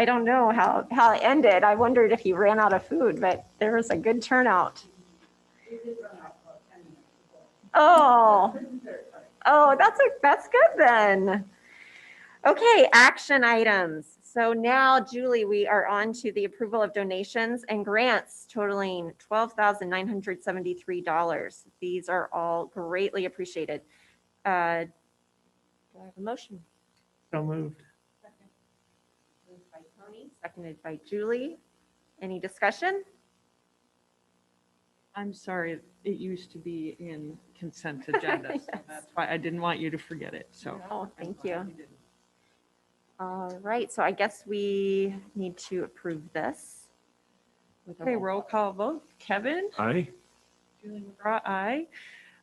I don't know how, how it ended. I wondered if he ran out of food, but there was a good turnout. Oh, oh, that's, a that's good then. Okay, action items. So now Julie, we are on to the approval of donations and grants totaling $12,973. These are all greatly appreciated. Uh, Do I have a motion? So moved. Moved by Tony, seconded by Julie. Any discussion? I'm sorry, it used to be in consent agenda, so Yes. that's why I didn't want you to forget it, so. Oh, thank you. All right, so I guess we need to approve this. with a Okay, roll call vote. Kevin? Aye. Julie McGraw, aye.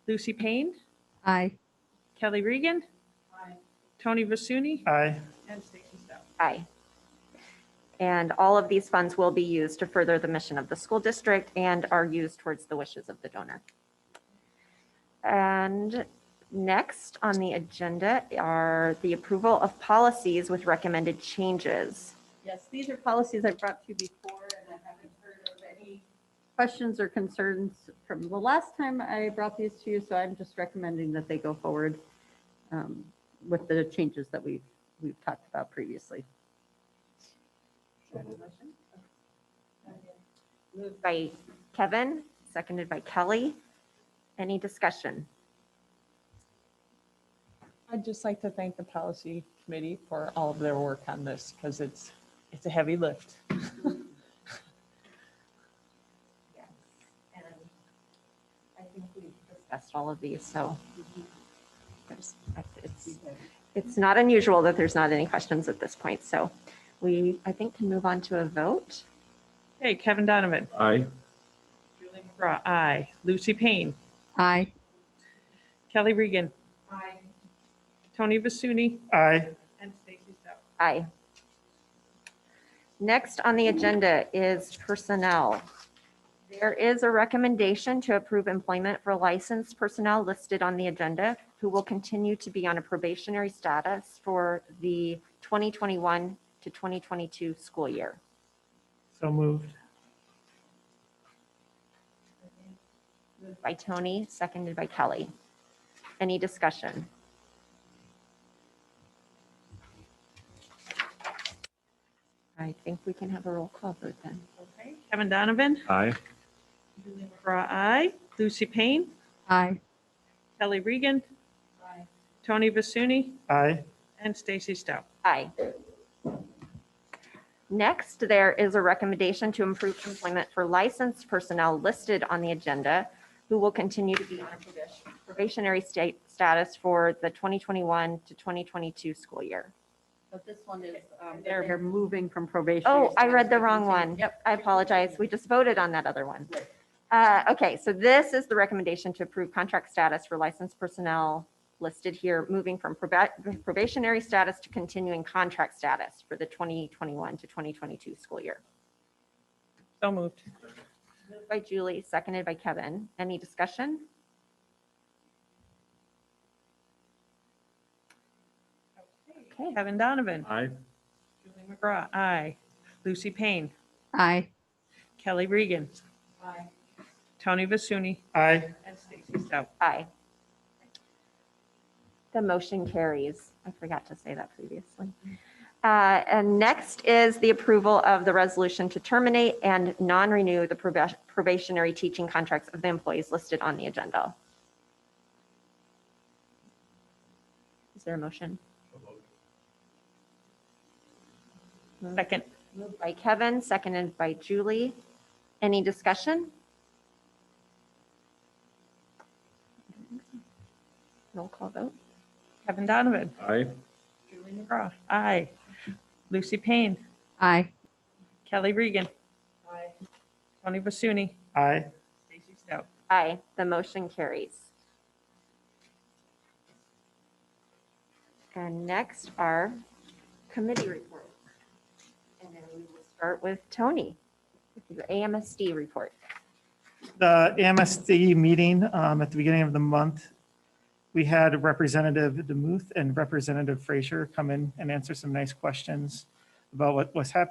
Lucy Payne? Aye. Kelly Regan? Tony Vasuny? Aye. And Stacy Stowe. Aye. And all of these funds will be used to further the mission of the school district and are used towards the wishes of the donor. And next on the agenda are the approval of policies with recommended changes. Yes, these are policies I brought to you before, and I haven't heard of any questions or concerns from the last time I brought these to you, so I'm just recommending that they go forward um, with the changes that we've, we've talked about previously. Moved by Kevin, seconded by Kelly. Any discussion? I'd just like to thank the policy committee for all of their work on this because it's, it's a heavy lift. And I think we've discussed all of these, so. there's- it's- It's not unusual that there's not any questions at this point, so we, I think, can move on to a vote. Okay, Kevin Donovan? Aye. Julie McGraw, aye. Lucy Payne? Aye. Kelly Regan? Aye. Tony Vasuny? Aye. And Stacy Stowe. Aye. Next on the agenda is personnel. There is a recommendation to approve employment for licensed personnel listed on the agenda who will continue to be on a probationary status for the 2021 to 2022 school year. So moved. Moved By Tony, seconded by Kelly. Any discussion? I think we can have a roll call vote then. Okay, Kevin Donovan? Aye. Julie McGraw, aye. Lucy Payne? Aye. Kelly Regan? Tony Vasuny? Aye. And Stacy Stowe. Aye. Next, there is a recommendation to improve employment for licensed personnel listed on the agenda who will continue to be on a probationary state status for the 2021 to 2022 school year. But this one is, um, they're they're moving from probation. Oh, I read the wrong one. Yep. I apologize. We just voted on that other one. Uh, Okay, so this is the recommendation to approve contract status for licensed personnel listed here, moving from proba- probationary status to continuing contract status for the 2021 to 2022 school year. So moved. Moved By Julie, seconded by Kevin. Any discussion? Okay, Kevin Donovan. Aye. Julie McGraw, aye. Lucy Payne. Aye. Kelly Regan. Tony Vasuny. Aye. And Stacy Stowe. aye. The motion carries. I forgot to say that previously. Uh, And next is the approval of the resolution to terminate and non-renew the proba- probationary teaching contracts of the employees listed on the agenda. Is there a motion? Second. Moved by Kevin, seconded by Julie. Any discussion? Roll call vote. Kevin Donovan. Aye. Julie McGraw, aye. Lucy Payne. Aye. Kelly Regan. Tony Vasuny. Aye. Stacy Stowe. Aye, the motion carries. And next are committee reports. And then we will start with Tony, with your AMSD report. The MSD meeting um, at the beginning of the month, we had Representative DeMuth and Representative Frazier come in and answer some nice questions about what was happening